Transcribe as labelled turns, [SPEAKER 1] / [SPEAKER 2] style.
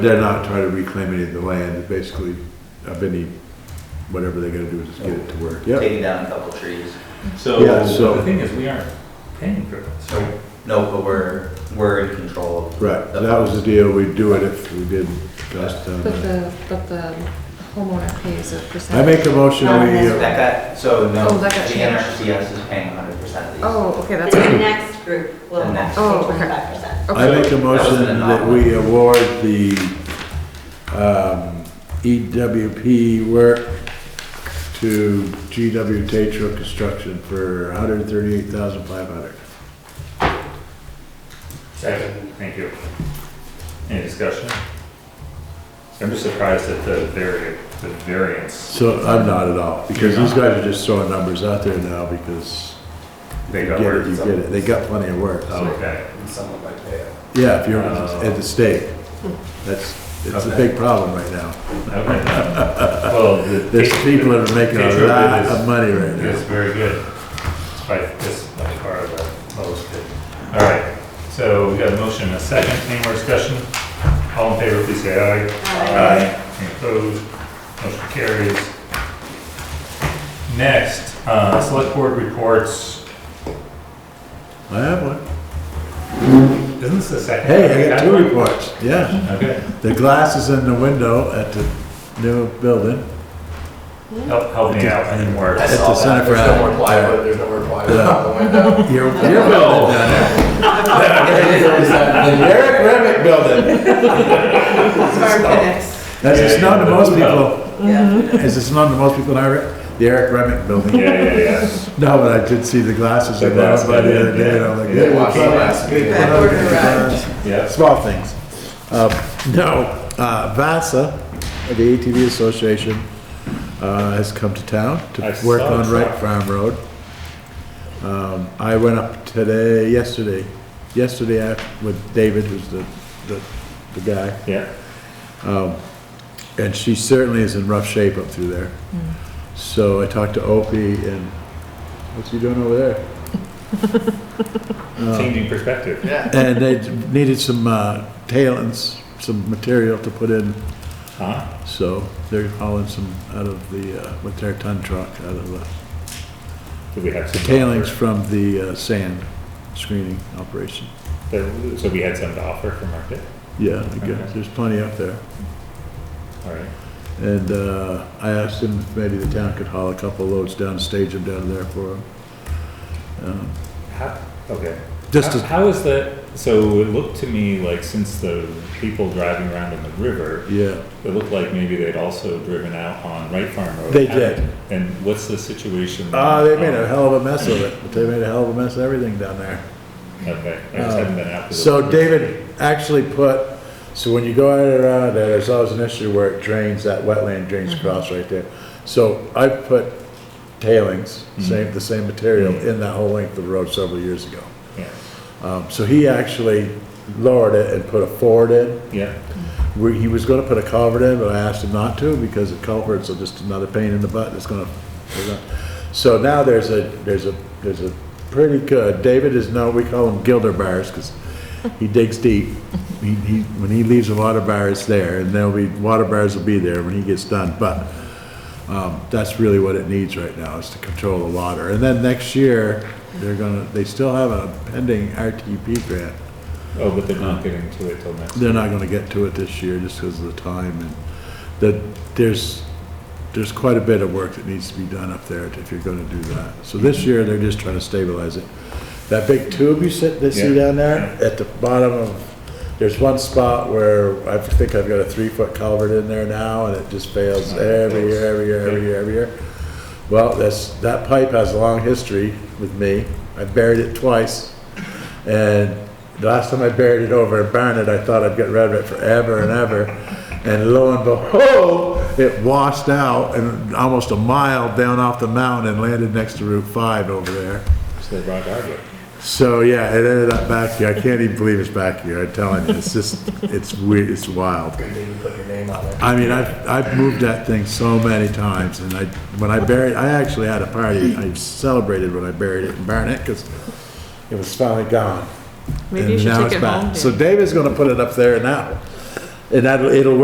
[SPEAKER 1] They're not trying to reclaim any of the land, basically, of any, whatever they're gonna do is just get it to where, yeah.
[SPEAKER 2] taking down a couple trees.
[SPEAKER 1] Yeah, so-
[SPEAKER 3] So, the thing is, we aren't paying for it, so.
[SPEAKER 2] No, but we're, we're in control of.
[SPEAKER 1] Right, that was the deal, we'd do it if we did uh, dust down.
[SPEAKER 4] But
[SPEAKER 1] there.
[SPEAKER 4] the, but the homeowner pays a
[SPEAKER 1] I
[SPEAKER 4] percentage.
[SPEAKER 1] make a motion, we, uh,
[SPEAKER 2] That got, so no,
[SPEAKER 4] Oh,
[SPEAKER 2] the
[SPEAKER 4] that got changed.
[SPEAKER 2] NRCS is paying hundred percent of these.
[SPEAKER 4] Oh, okay, that's,
[SPEAKER 5] The next group will
[SPEAKER 2] The next.
[SPEAKER 5] actually
[SPEAKER 4] Oh, okay.
[SPEAKER 5] twenty-five percent.
[SPEAKER 1] I
[SPEAKER 4] okay,
[SPEAKER 1] make a motion that we award the, um, EWP work to GW Tatro Construction for hundred and thirty-eight thousand five hundred.
[SPEAKER 3] Second. Thank you. Any discussion? I'm just surprised at the vari, the variance
[SPEAKER 1] So I'm not at all, because these guys are just throwing numbers out there now because
[SPEAKER 3] they
[SPEAKER 1] you
[SPEAKER 3] got
[SPEAKER 1] get it, you
[SPEAKER 3] words.
[SPEAKER 1] get it, they got plenty of work, so.
[SPEAKER 3] Oh, Okay,
[SPEAKER 2] Someone might pay it.
[SPEAKER 1] Yeah, if you're
[SPEAKER 3] Oh.
[SPEAKER 1] at the state, that's, it's a
[SPEAKER 3] Okay.
[SPEAKER 1] big problem right now.
[SPEAKER 3] okay. Well, the.
[SPEAKER 1] There's people that are making
[SPEAKER 3] Pedro
[SPEAKER 1] a
[SPEAKER 3] did
[SPEAKER 1] lot
[SPEAKER 3] his-
[SPEAKER 1] of money right
[SPEAKER 3] It's
[SPEAKER 1] now.
[SPEAKER 3] very good. It's by, it's by far the lowest bid. All right, so we got a motion and a second. Any more discussion? All in favor, please say aye.
[SPEAKER 5] Aye.
[SPEAKER 3] Any opposed? Motion carries. Next, uh, select board reports.
[SPEAKER 1] I have one.
[SPEAKER 3] Isn't this the second?
[SPEAKER 1] Hey, I got two reports, yeah.
[SPEAKER 3] Okay,
[SPEAKER 1] The glass is in the window at the new building.
[SPEAKER 3] help, help me out. I need more.
[SPEAKER 2] I
[SPEAKER 1] That's
[SPEAKER 2] saw
[SPEAKER 1] the
[SPEAKER 2] that.
[SPEAKER 1] center for
[SPEAKER 2] There's no
[SPEAKER 1] Adam.
[SPEAKER 2] more plywood, there's no more plywood
[SPEAKER 1] Yeah.
[SPEAKER 2] on the window.
[SPEAKER 1] Your, your building down there. The Eric Remick building. That's
[SPEAKER 3] Yeah,
[SPEAKER 1] just
[SPEAKER 3] yeah,
[SPEAKER 1] known to
[SPEAKER 3] the-
[SPEAKER 1] most
[SPEAKER 3] no.
[SPEAKER 1] people.
[SPEAKER 4] Mm-hmm.
[SPEAKER 1] Is this known to most people in Iraq? The Eric Remick building.
[SPEAKER 3] Yeah, yeah, yeah.
[SPEAKER 1] No, but I did see the glasses
[SPEAKER 3] The
[SPEAKER 1] in there
[SPEAKER 3] glass
[SPEAKER 1] by the
[SPEAKER 3] building,
[SPEAKER 1] other day, and
[SPEAKER 3] yeah.
[SPEAKER 1] I'm like,
[SPEAKER 3] Yeah.
[SPEAKER 1] hey,
[SPEAKER 2] Watch
[SPEAKER 1] we can't-
[SPEAKER 2] the last
[SPEAKER 1] we
[SPEAKER 2] video.
[SPEAKER 1] can't look at the glass.
[SPEAKER 3] Yes.
[SPEAKER 1] small things. Uh, No, uh, VASA, the ATV Association, uh, has come to town
[SPEAKER 3] I
[SPEAKER 1] to
[SPEAKER 3] saw
[SPEAKER 1] work on
[SPEAKER 3] that.
[SPEAKER 1] Wright Farm Road. Um, I went up today, yesterday, yesterday I- with David, who's the, the, the guy.
[SPEAKER 3] Yeah.
[SPEAKER 1] And she certainly is in rough shape up through there. So I talked to Opie and, what's he doing over there? Uh,
[SPEAKER 3] Changing perspective.
[SPEAKER 2] Yeah.
[SPEAKER 1] And they needed some, uh, tailings, some material to put in
[SPEAKER 3] Huh?
[SPEAKER 1] So they're hauling some out of the, uh, with their ton truck, out of the
[SPEAKER 3] Do we have
[SPEAKER 1] the
[SPEAKER 3] some?
[SPEAKER 1] tailings from the uh, sand screening operation.
[SPEAKER 3] There- So we had some to offer for market?
[SPEAKER 1] Yeah, I guess, there's plenty up there.
[SPEAKER 3] All right.
[SPEAKER 1] And uh, I asked him if maybe the town could haul a couple loads down, stage them down there for him.
[SPEAKER 3] How, okay.
[SPEAKER 1] Just
[SPEAKER 3] How-
[SPEAKER 1] to-
[SPEAKER 3] How is that, so it looked to me like since the people driving around in the river,
[SPEAKER 1] Yeah,
[SPEAKER 3] it looked like maybe they'd also driven out on Wright Farm Road.
[SPEAKER 1] They did.
[SPEAKER 3] And what's the situation?
[SPEAKER 1] ah, they made a
[SPEAKER 3] on-
[SPEAKER 1] hell of a mess of it, but they made a hell of a mess of everything down there.
[SPEAKER 3] Okay, I just haven't been out. to the-
[SPEAKER 1] Um, Oh. So David actually put, so when you go out around there, there's always an issue where it drains, that wetland drains across right there. So I put tailings, same, the same material in that whole length of road several years ago.
[SPEAKER 3] Yeah,
[SPEAKER 1] Um, so he actually lowered it and put a ford in.
[SPEAKER 3] yeah,
[SPEAKER 1] Where he was gonna put a culvert in, but I asked him not to because the culverts are just another pain in the butt that's gonna. they're not- So now there's a, there's a, there's a pretty good, David is known, we call him gilder bars because he digs deep. He, he, when he leaves a water bar, it's there and there'll be, water bars will be there when he gets done, but um, that's really what it needs right now is to control the water. And then next year, they're gonna, they still have a pending RTP grant
[SPEAKER 3] oh, but they're not getting to it till next.
[SPEAKER 1] they're not gonna get to it this year just because of the time and that there's, there's quite a bit of work that needs to be done up there if you're gonna do that. So this year, they're just trying to stabilize it. That big tube you sit, they see
[SPEAKER 3] Yeah.
[SPEAKER 1] down there, at the bottom of, there's one spot where I think I've got a three-foot culvert in there now and it just fails every year, every year, every year, every year. Well, that's, that pipe has a long history with me. I buried it twice. And the last time I buried it over in Barnet, I thought I'd get rid of it forever and ever. And lo and behold, it washed out and almost a mile down off the mountain and landed next to Route 5 over there.
[SPEAKER 3] So they brought hardwood.
[SPEAKER 1] So, yeah, it ended up back here. I can't even believe it's back here. I'm telling you, it's just, it's weird, it's wild.
[SPEAKER 2] Maybe put your name on it.
[SPEAKER 1] I mean, I've, I've moved that thing so many times, and I, when I buried, I actually had a party, I celebrated when I buried it in Barnet, because it was finally gone.
[SPEAKER 4] Maybe you
[SPEAKER 1] And
[SPEAKER 4] should
[SPEAKER 1] now
[SPEAKER 4] take
[SPEAKER 1] it's
[SPEAKER 4] it
[SPEAKER 1] back.
[SPEAKER 4] home,
[SPEAKER 1] So David's gonna put it up there now, And that, it'll work